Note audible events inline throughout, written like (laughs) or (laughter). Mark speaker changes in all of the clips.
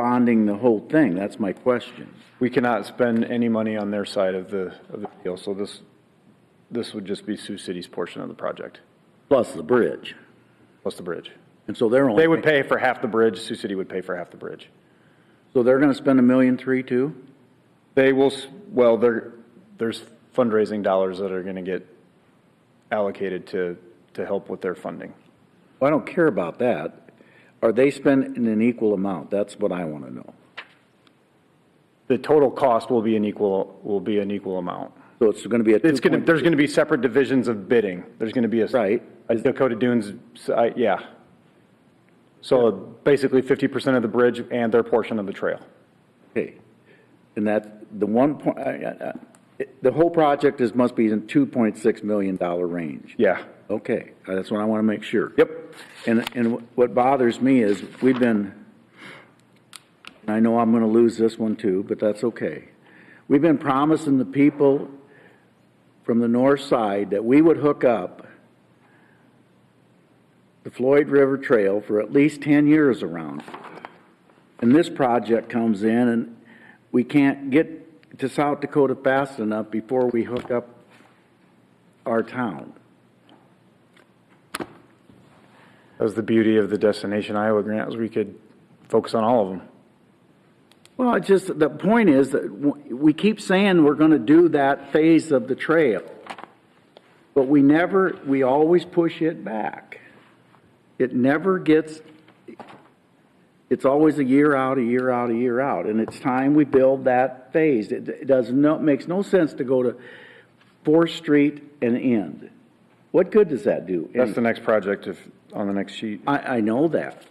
Speaker 1: bonding the whole thing? That's my question.
Speaker 2: We cannot spend any money on their side of the, of the deal, so this, this would just be Sioux City's portion of the project,
Speaker 1: Plus the bridge.
Speaker 2: plus the bridge.
Speaker 1: And so they're only.
Speaker 2: They would pay for half the bridge, Sioux City would pay for half the bridge.
Speaker 1: So they're gonna spend a million three too?
Speaker 2: They will, s- well, there, there's fundraising dollars that are gonna get allocated to, to help with their funding.
Speaker 1: Well, I don't care about that. Are they spending an equal amount? That's what I wanna know.
Speaker 2: The total cost will be an equal, will be an equal amount.
Speaker 1: So it's gonna be a two
Speaker 2: It's gonna,
Speaker 1: point,
Speaker 2: there's gonna be separate divisions of bidding. There's gonna be a.
Speaker 1: Right.
Speaker 2: A Dakota Dunes, I- yeah. So basically fifty percent of the bridge and their portion of the trail.
Speaker 1: okay. And that, the one point, I- I- I- the whole project is, must be in two point six million dollar range.
Speaker 2: Yeah.
Speaker 1: Okay, uh, that's what I wanna make sure.
Speaker 2: Yep.
Speaker 1: And, and what bothers me is, we've been, and I know I'm gonna lose this one too, but that's okay. We've been promising the people from the north side that we would hook up the Floyd River Trail for at least ten years around. And this project comes in and we can't get to South Dakota fast enough before we hook up our town.
Speaker 2: That's the beauty of the Destination Iowa grant is we could focus on all of them.
Speaker 1: Well, it's just, the point is that w- we keep saying we're gonna do that phase of the trail, but we never, we always push it back. It never gets, it's always a year out, a year out, a year out, and it's time we build that phase. It it does no, makes no sense to go to Fourth Street and end. What good does that do?
Speaker 2: That's the next project if, on the next sheet.
Speaker 1: I, I know that,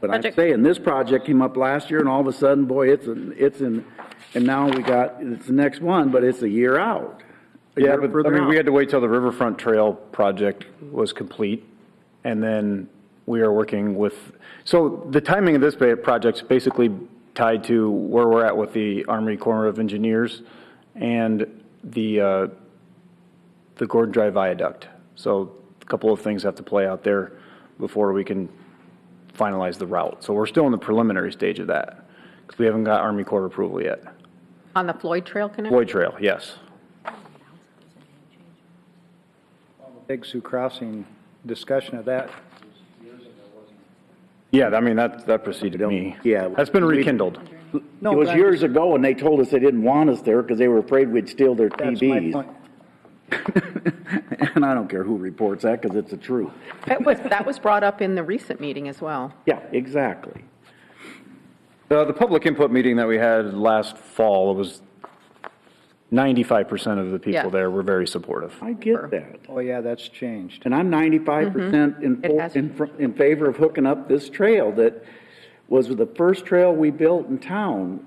Speaker 1: but I'm
Speaker 3: Project-
Speaker 1: saying, this project came up last year, and all of a sudden, boy, it's, in- it's in, and now we got, it's the next one, but it's a year out. a
Speaker 2: Yeah,
Speaker 1: year
Speaker 2: but I
Speaker 1: further
Speaker 2: mean, we
Speaker 1: out.
Speaker 2: had to wait till the Riverfront Trail project was complete, and then we are working with, so the timing of this ba- project's basically tied to where we're at with the Army Corps of Engineers and the, uh, the Gordon Drive Viaduct. So a couple of things have to play out there before we can finalize the route. So we're still in the preliminary stage of that, because we haven't got Army Corps approval yet.
Speaker 3: On the Floyd Trail connection?
Speaker 2: Floyd Trail, yes.
Speaker 4: Big Sioux Crossing discussion of that.
Speaker 2: Yeah, I mean, that, that preceded me.
Speaker 1: yeah.
Speaker 2: That's been
Speaker 1: We-
Speaker 2: rekindled.
Speaker 4: No,
Speaker 1: It was
Speaker 4: but I'm-
Speaker 1: years ago, and they told us they didn't want us there because they were afraid we'd steal their
Speaker 4: That's my
Speaker 1: TVs.
Speaker 4: point.
Speaker 1: (laughs) And I don't care who reports that, because it's the truth.
Speaker 3: That was, that was brought up in the recent meeting as well.
Speaker 1: Yeah, exactly.
Speaker 2: The, the public input meeting that we had last fall, it was ninety-five percent of the
Speaker 3: Yeah.
Speaker 2: people there were very supportive.
Speaker 1: I get that.
Speaker 4: Oh, yeah, that's changed.
Speaker 1: And I'm ninety-five percent in,
Speaker 3: Mm-hmm. It
Speaker 1: for-
Speaker 3: has-
Speaker 1: in, fr- in favor of hooking up this trail that was the first trail we built in town,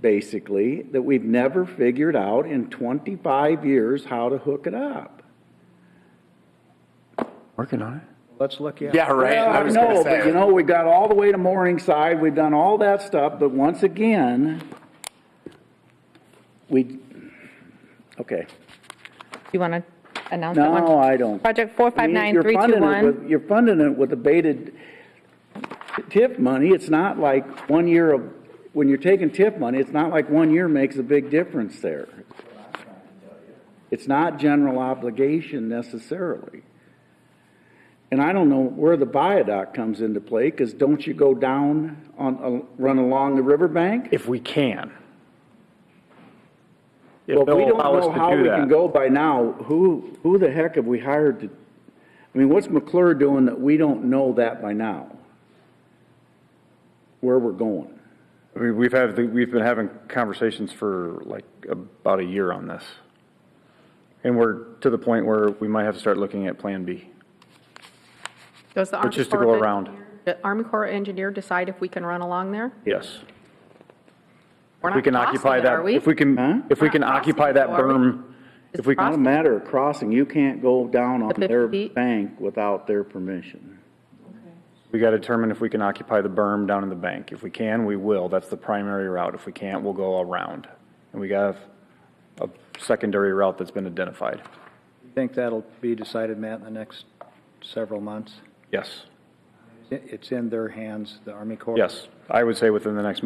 Speaker 1: basically, that we've never figured out in twenty-five years how to hook it up.
Speaker 2: Working on it.
Speaker 4: Let's look at.
Speaker 5: Yeah, right. I was gonna
Speaker 1: Uh, No, but
Speaker 5: say.
Speaker 1: you know, we got all the way to Morningside, we've done all that stuff, but once again, we, okay.
Speaker 6: You want to announce that one?
Speaker 1: No, I don't.
Speaker 6: Project
Speaker 1: I mean, you're funding it
Speaker 6: 459321,
Speaker 1: with- You're funding it with abated TIF money. It's not like one year of, when you're taking TIF money, it's not like one year makes a big difference there. It's not general obligation necessarily. And I don't know where the viaduct comes into play, because don't you go down on, uh, run along the riverbank?
Speaker 2: If we can.
Speaker 1: Well,
Speaker 2: If
Speaker 1: if we
Speaker 2: they'll
Speaker 1: don't
Speaker 2: allow us
Speaker 1: know how
Speaker 2: to
Speaker 1: we
Speaker 2: do
Speaker 1: can
Speaker 2: that.
Speaker 1: go by now, who, who the heck have we hired to, I mean, what's McClure doing that we don't know that by now? Where we're going?
Speaker 2: We, we've had, the- we've been having conversations for like about a year on this. And we're to the point where we might have to start looking at Plan B.
Speaker 3: Does the Army
Speaker 2: just to
Speaker 3: Corps
Speaker 2: go
Speaker 3: of
Speaker 2: around.
Speaker 3: Engineer- The Army Corps engineer decide if we can run along there?
Speaker 2: Yes.
Speaker 3: We're
Speaker 2: If we
Speaker 3: not
Speaker 2: can
Speaker 3: crossing
Speaker 2: occupy
Speaker 3: it,
Speaker 2: that,
Speaker 3: are we?
Speaker 2: if we
Speaker 1: Huh?
Speaker 2: can, if we
Speaker 3: We're
Speaker 2: can
Speaker 3: not crossing
Speaker 2: occupy
Speaker 3: it,
Speaker 2: that
Speaker 3: though, are we?
Speaker 2: berm,
Speaker 3: It's
Speaker 2: if we
Speaker 1: Not a
Speaker 3: crossing.
Speaker 1: matter of crossing. You can't go down on
Speaker 3: The 50
Speaker 1: their
Speaker 3: feet?
Speaker 1: bank without their permission.
Speaker 2: We got to determine if we can occupy the berm down in the bank. If we can, we will. That's the primary route. If we can't, we'll go around. And we got a secondary route that's been identified.
Speaker 4: Think that'll be decided, Matt, in the next several months.
Speaker 2: Yes.
Speaker 4: Is
Speaker 7: it's in their hands, the Army Corps.
Speaker 4: Yes, I would say within the next